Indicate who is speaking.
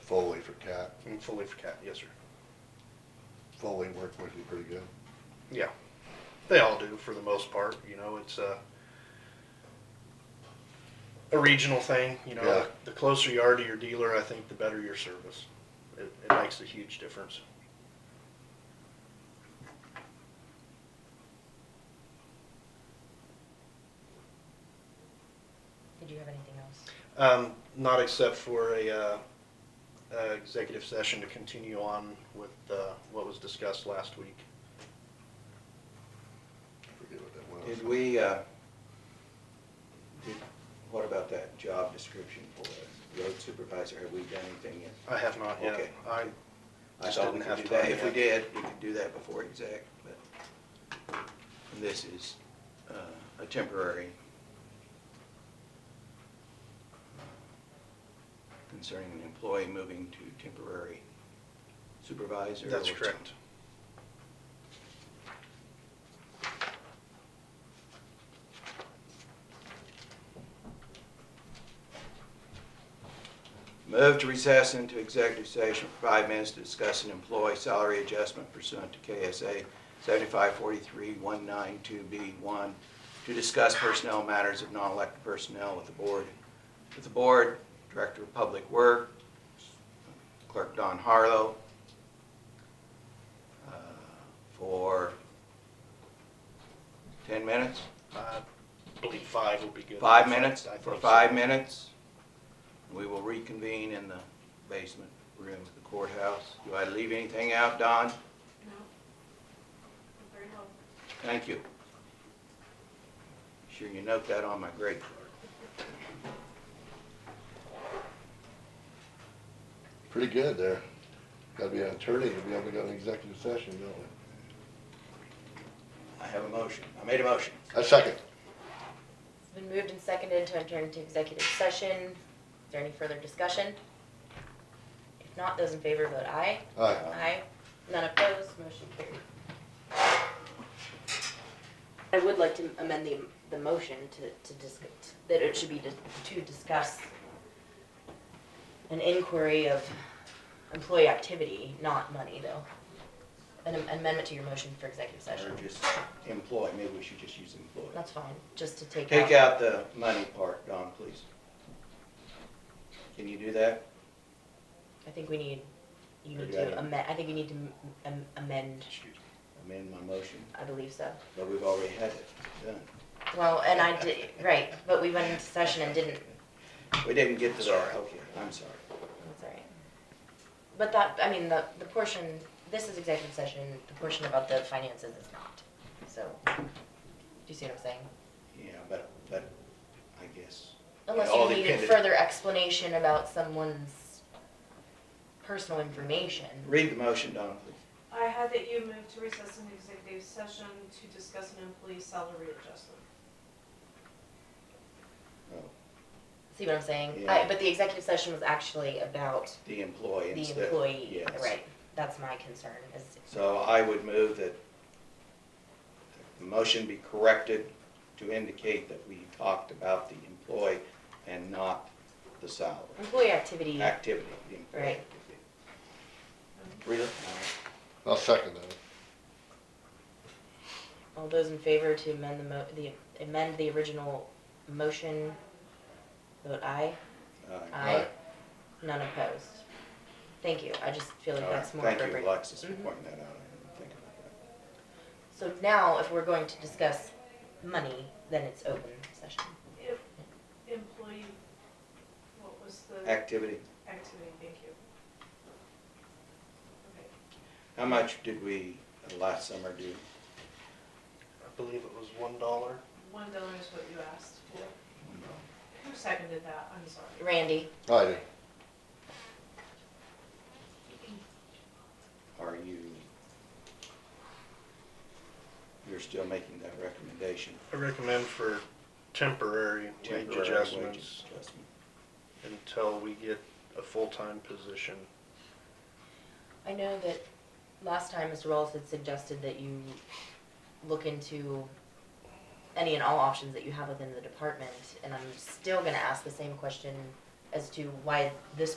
Speaker 1: Foley for Cat.
Speaker 2: And fully for cat, yes, sir.
Speaker 1: Foley worked with him pretty good.
Speaker 2: Yeah, they all do for the most part. You know, it's a a regional thing. You know,
Speaker 1: Yeah.
Speaker 2: the closer you are to your dealer, I think the better your service. It, it makes a huge difference.
Speaker 3: Did you have anything else?
Speaker 2: Um, not except for a, uh, uh, executive session to continue on with, uh, what was discussed last week.
Speaker 1: I forget what that was.
Speaker 4: Did we, uh, did, what about that job description for the road supervisor? Have we done anything yet?
Speaker 2: I have not yet.
Speaker 4: Okay.
Speaker 2: I,
Speaker 4: I
Speaker 2: Just
Speaker 4: thought we
Speaker 2: didn't
Speaker 4: could
Speaker 2: have
Speaker 4: do that.
Speaker 2: time
Speaker 4: If we
Speaker 2: yet.
Speaker 4: did, we could do that before exec, but this is uh, a temporary concerning an employee moving to temporary supervisor.
Speaker 2: that's
Speaker 4: or-
Speaker 2: correct.
Speaker 4: Move to recess into executive session for five minutes to discuss an employee salary adjustment pursuant to KSA 7543192B1 to discuss personnel matters of non-elected personnel with the board. With the board, Director of Public Works, Clerk Don Harlow, uh, for 10 minutes?
Speaker 2: I believe five would be good.
Speaker 4: Five minutes,
Speaker 2: I
Speaker 4: for
Speaker 2: think so.
Speaker 4: five minutes. We will reconvene in the basement room of the courthouse. Do I leave anything out, Don?
Speaker 5: No. Very helpful.
Speaker 4: Thank you. Sure you note that on my grade card.
Speaker 1: Pretty good there. Gotta be an attorney to be able to go to an executive session, don't we?
Speaker 4: I have a motion. I made a motion.
Speaker 1: I second.
Speaker 3: It's been moved and seconded to enter into executive session. Is there any further discussion? If not, those in favor vote aye.
Speaker 1: Aye.
Speaker 3: Aye. None opposed, motion carried. I would like to amend the, the motion to, to discuss, that it should be to to discuss an inquiry of employee activity, not money, though. An amendment to your motion for executive session.
Speaker 4: Or just employ, maybe we should just use employ.
Speaker 3: That's fine, just to take out.
Speaker 4: Take out the money part, Don, please. Can you do that?
Speaker 3: I think we need, you
Speaker 4: Or
Speaker 3: need
Speaker 4: you
Speaker 3: to
Speaker 4: gotta-
Speaker 3: amend, I think you need to m- am- amend,
Speaker 2: Excuse me.
Speaker 4: Amend my motion,
Speaker 3: I believe so.
Speaker 4: but we've already had it done.
Speaker 3: Well, and I did, right, but we went into session and didn't,
Speaker 4: We didn't get to
Speaker 2: Sorry.
Speaker 4: that. Okay, I'm sorry.
Speaker 3: that's all right. But that, I mean, the, the portion, this is executive session, the portion about the finances is not, so, do you see what I'm saying?
Speaker 4: Yeah, but, but I guess.
Speaker 3: Unless
Speaker 4: all
Speaker 3: you needed
Speaker 4: depended-
Speaker 3: further explanation about someone's personal information.
Speaker 4: Read the motion, Don, please.
Speaker 5: I had that you moved to recess an executive session to discuss an employee salary adjustment.
Speaker 4: Oh,
Speaker 3: See what I'm saying?
Speaker 4: Yeah.
Speaker 3: I, but the executive session was actually about
Speaker 4: The employee
Speaker 3: the
Speaker 4: instead.
Speaker 3: employee,
Speaker 4: Yes.
Speaker 3: right, that's my concern, is
Speaker 4: So I would move that the motion be corrected to indicate that we talked about the employee and not the salary,
Speaker 3: employee activity.
Speaker 4: activity, the employee
Speaker 3: Right.
Speaker 4: activity. Read it.
Speaker 1: I'll second that.
Speaker 3: All those in favor to amend the mo, the, amend the original motion, vote aye.
Speaker 4: All right.
Speaker 1: Aye.
Speaker 3: None opposed. Thank you, I just feel like
Speaker 4: All right.
Speaker 3: that's more appropriate.
Speaker 4: Thank you, Alexis, for
Speaker 3: Mhm.
Speaker 4: pointing that out. I didn't think about that.
Speaker 3: So now, if we're going to discuss money, then it's open session.
Speaker 5: If employee, what was the
Speaker 4: Activity.
Speaker 5: activity? Thank you. Okay.
Speaker 4: How much did we uh, last summer do?
Speaker 2: I believe it was one dollar.
Speaker 5: One dollar is what you asked for. Who seconded that? I'm sorry.
Speaker 3: Randy,
Speaker 1: I do.
Speaker 4: Are you, you're still making that recommendation?
Speaker 2: I recommend for temporary wage
Speaker 4: temporary wage
Speaker 2: adjustments
Speaker 4: adjustment?
Speaker 2: until we get a full-time position.
Speaker 3: I know that last time Mr. Wallace had suggested that you look into any and all options that you have within the department, and I'm still gonna ask the same question as to why this